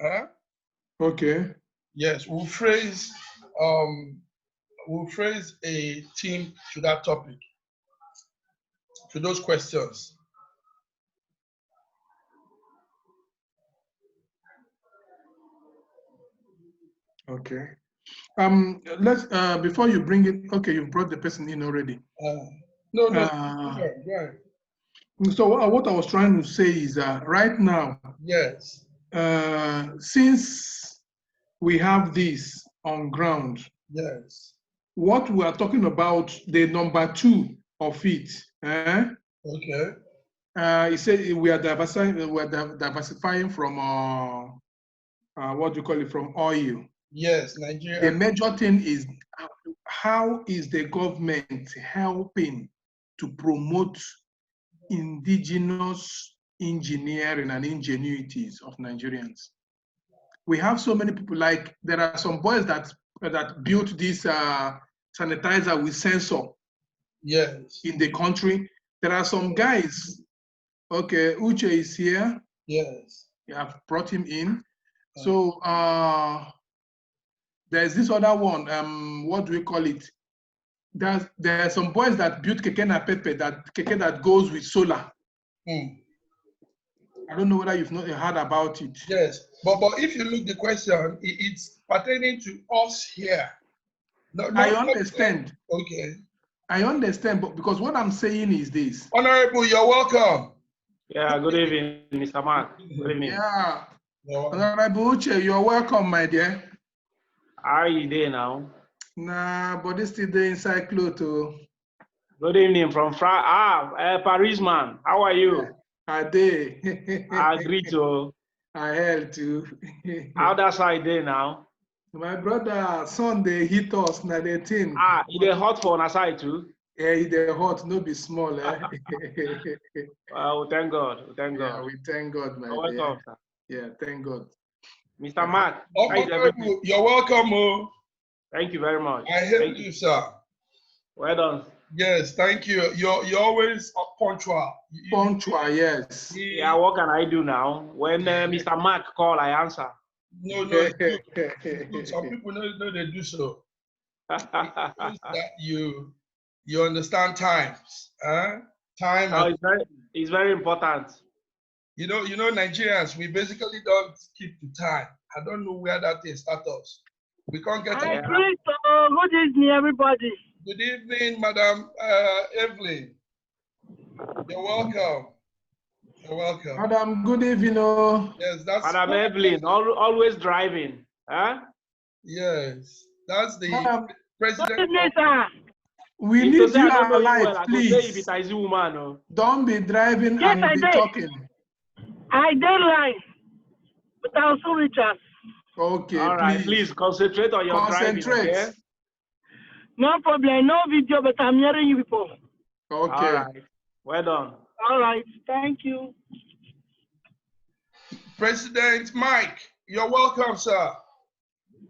Huh? Okay. Yes, we'll phrase um we'll phrase a theme to that topic, to those questions. Okay. Um, let's, uh, before you bring it, okay, you brought the person in already. Uh, no, no, Uh, yeah, right. so wha- what I was trying to say is that right now, Yes, uh, since we have this on ground, yes, what we are talking about, the number two of it, eh? okay, Uh, he said we are diversifying, we are div- diversifying from, uh, uh, what do you call it, from oil. yes, The Nigeria, major thing is uh, how is the government helping to promote indigenous engineering and ingenuities of Nigerians? We have so many people, like there are some boys that, that built this uh, sanitizer with sensor yes, in the country. There are some guys, okay, Uche is here. yes, I've brought him in. So uh, there's this other one. Um, what do we call it? There's, there are some boys that built keke na pepe that keke that goes with solar. Hmm. I don't know whether you've not heard about it. yes. But but if you look the question, i- it's pertaining to us here. No, no, I understand. Okay, I understand, but because what I'm saying is this. honorable, you're welcome. Yeah, good evening, Mr. Mark. Good evening. Yeah, You're welcome. Honorable Uche, you're welcome, my dear. How are you there now? Nah, but this still the inside clothes. oh. Good evening from Fra ah, uh, Paris man. How are you? Are they? I agree to I held too. how that side there now. My brother, Sunday hit us na the thing. Ah, it is hot for on side too. Eh, e dey hot, no be small. Eh? Oh, thank God. We Thank yeah, God. we thank God, my You're welcome, dear. sir. Yeah, thank God. Mr. Mark. how is everything? Honorable, you're welcome. Oh. Thank you very much. I Thank helped you. you, sir. Well done. Yes, thank you. You're you're always uh, punctual. You- Punctual, yes. you- Yeah, what can I do now? When uh, Mr. Mark call, I answer. No, no. it's good. It's good. Some people know, know they do so. Oh, It means that you you understand times, huh? Time. Oh, and- it's very, it's very important. you know, you know, Nigerians. We basically don't keep to time. I don't know where that thing starts us. We can't get. I Our, Aye. agree, so good evening, everybody. good evening, Madam uh, Evelyn. You're welcome. You're welcome. Madam, good evening. Oh. Yes, that's. Madam Evelyn, al- always driving. Huh? Yes, that's the Madam, Good president. evening, sir. we If need say you I don't know alive, well, I could say if please. it's a zoo man, oh. Don't be driving Yes, and I be did. talking. I did line, but I'll soon return. Okay, All right, please. please concentrate on your driving. Concentrate. Okay? No problem, no video, but I'm hearing you people. Okay. All right. Well done. All right, thank you. President Mike, you're welcome, sir.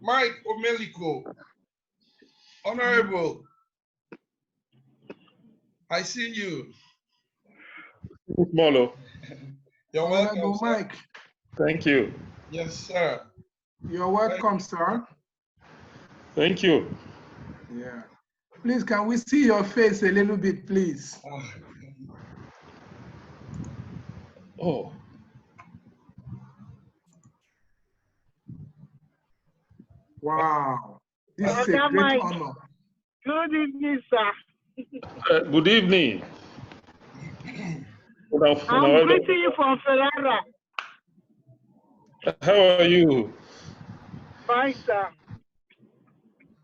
Mike Omeliko, Honorable, I see you. Molo, You're welcome, Honorable sir. Mike, thank you. Yes, sir. you're welcome, sir. Thank you. Yeah. Please, can we see your face a little bit, please? Ah, Oh, Wow. This is a Brother great Mike. honor. Good evening, sir. uh, good evening. um Good I'm afternoon. greeting you from Ferrara. How are you? Fine, sir.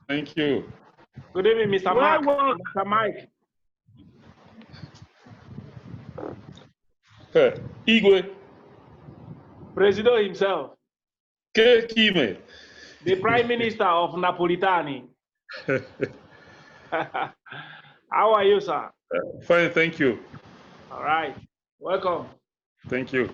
Thank you. Good evening, Mr. Well Mark. work. Mr. Mike. Uh, Igwe Presido himself, K. Kime. the Prime Minister of Napolitani. How are you, sir? Fine, Uh, thank you. All right. Welcome. Thank you.